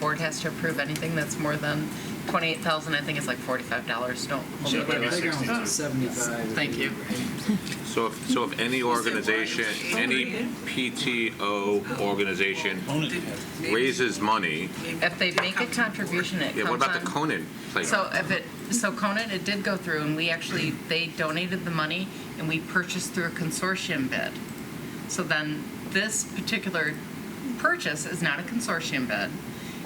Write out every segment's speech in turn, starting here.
board has to approve anything that's more than twenty-eight thousand, I think it's like forty-five dollars, don't. hold me Should to be that. sixty-two. Playground seventy-five. Thank you. So if, so if any organization, any PTO organization raises money, If they make a contribution, it comes on. yeah, what about the Conan So playground? if it, so Conan, it did go through, and we actually, they donated the money, and we purchased through a consortium bid. So then, this particular purchase is not a consortium bid,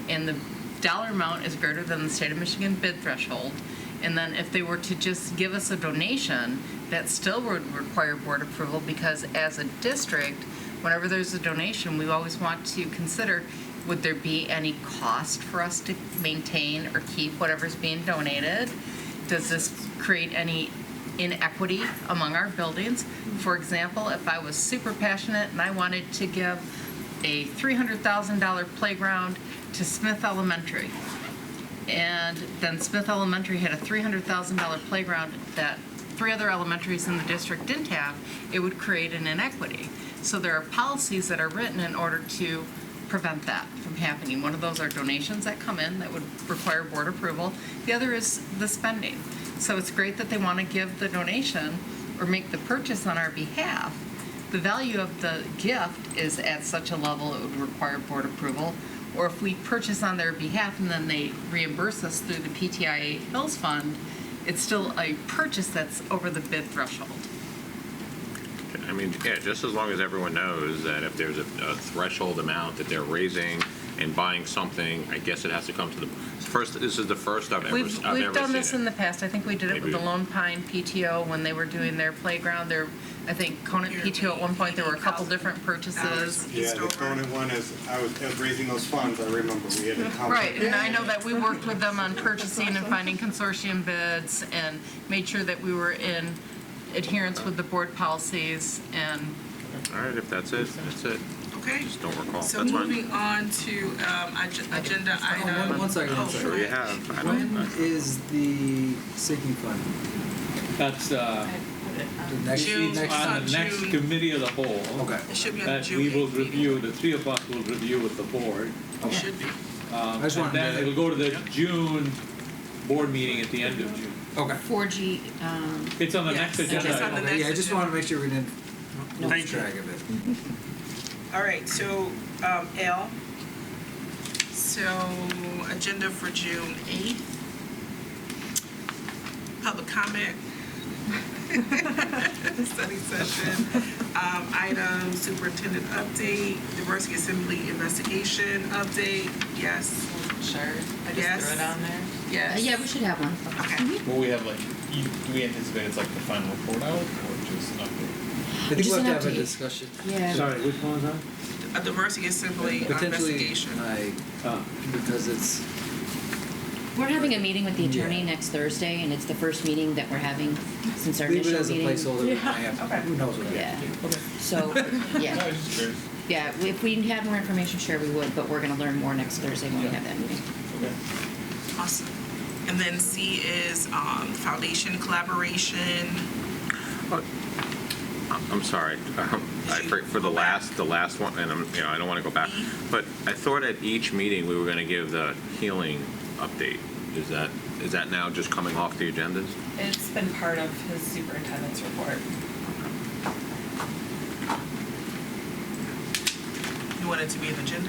and the dollar amount is greater than the state of Michigan bid threshold. And then if they were to just give us a donation, that still would require board approval, because as a district, whenever there's a donation, we always want to consider, would there be any cost for us to maintain or keep whatever's being donated? Does this create any inequity among our buildings? For example, if I was super passionate and I wanted to give a $300,000 playground to Smith Elementary, and then Smith Elementary had a $300,000 playground that three other elementaries in the district didn't have, it would create an inequity. So there are policies that are written in order to prevent that from happening. One of those are donations that come in that would require board approval. The other is the spending. So it's great that they want to give the donation or make the purchase on our behalf. The value of the gift is at such a level it would require board approval or if we purchase on their behalf and then they reimburse us through the PTIA Hills Fund, it's still a purchase that's over the bid threshold. I mean, yeah, just as long as everyone knows that if there's a, a threshold amount that they're raising and buying something, I guess it has to come to the, first, this is the first I've ever, I've ever We've, seen we've done this it. in the past, I think we did it with the Maybe- Lone Pine PTO when they were doing their playground, their, I think Conant PTO at one point, there were a couple different purchases. Yeah, the Cronin one is, I was I was raising those funds, I remember, we had a council. Right, and I know that we worked with them on purchasing and finding consortium bids and made sure that we were in adherence with the board policies and All right, if that's it, that's it. Okay. Just don't recall. So That's fine. moving on to um, ag- agenda one- item. one second, one Oh, second. Sure you have. I uh, When don't, I- is the sinking fund? That's uh, The next- June, next- uh, on the next June. committee of the whole. Okay. It should be on That June we will 8th meeting. review, the three of us will review with the board. It should be. um, I just And wanted then to- it'll go to the June board meeting at the end of June. Okay. 4G, um, It's on the Yes, next it's agenda. on the item. next Yeah, I just agenda. wanted to make sure we didn't lose Thank you. track of it. All right, so um, L. So agenda for June 8th. Public comment. Study session. Um, Item superintendent update, diversity assembly investigation update. Yes, Sure, I Yes. just threw it on there. uh, yes. yeah, we should have one. Okay. Will we have like, you- do we anticipate it's like the final report out or just an update? I think Just we'll an have to have a update. discussion. Yeah. Sorry, which one was that? A diversity assembly Potentially, investigation. I, Uh, because it's, We're having a meeting with the attorney Yeah. next Thursday, and it's the first meeting that we're having since our leave initial it as a meeting. placeholder, we might have- who knows what I Yeah, have to do. so, No, I yeah, was just curious. yeah, if we had more information, sure, we would, but we're gonna learn more next Thursday when we have that meeting. Okay. Awesome. And then C is um, foundation collaboration. I'm sorry, Um, I, for- for the last, the last one, and I'm, you know, I don't want to go back, but I thought at each meeting, we were going to give the healing update. Is that, is that now just coming off the agendas? It's been part of his superintendent's report. You want it to be an agenda?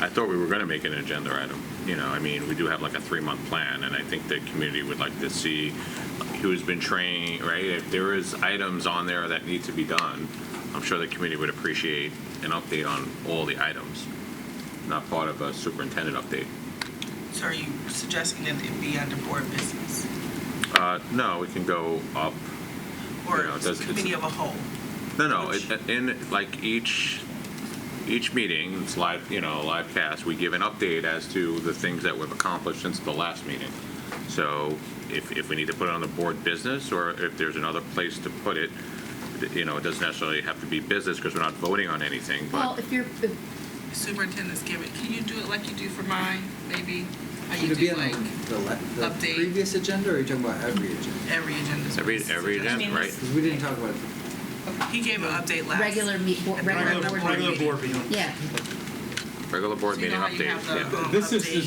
I thought we were going to make an agenda item. You know, I mean, we do have like a three-month plan, and I think the community would like to see who's been trained, right? If there is items on there that need to be done, I'm sure the community would appreciate an update on all the items, not part of a superintendent update. So are you suggesting that it be under board business Uh, No, we can go up. or No, it doesn't- committee of a whole? No, no, it- in, like, each, each meeting, it's live, you know, live cast, we give an update as to the things that we've accomplished since the last meeting. So if, if we need to put it on the board business, or if there's another place to put it, you know, it doesn't necessarily have to be business, because we're not voting on anything, Well, but if you're, if- Superintendent's giving, can you do it like you do for mine, maybe? How Should you it be do on like the- the, le- the update. previous agenda, or are you talking about every agenda? every agenda? every, every agenda, right? Because we didn't talk about it. He gave an update last. regular meet, bo- regular Regular- board Regular meeting. board meeting. Yeah, Regular board So you meeting know how you update, have the, yeah. um, This is- update?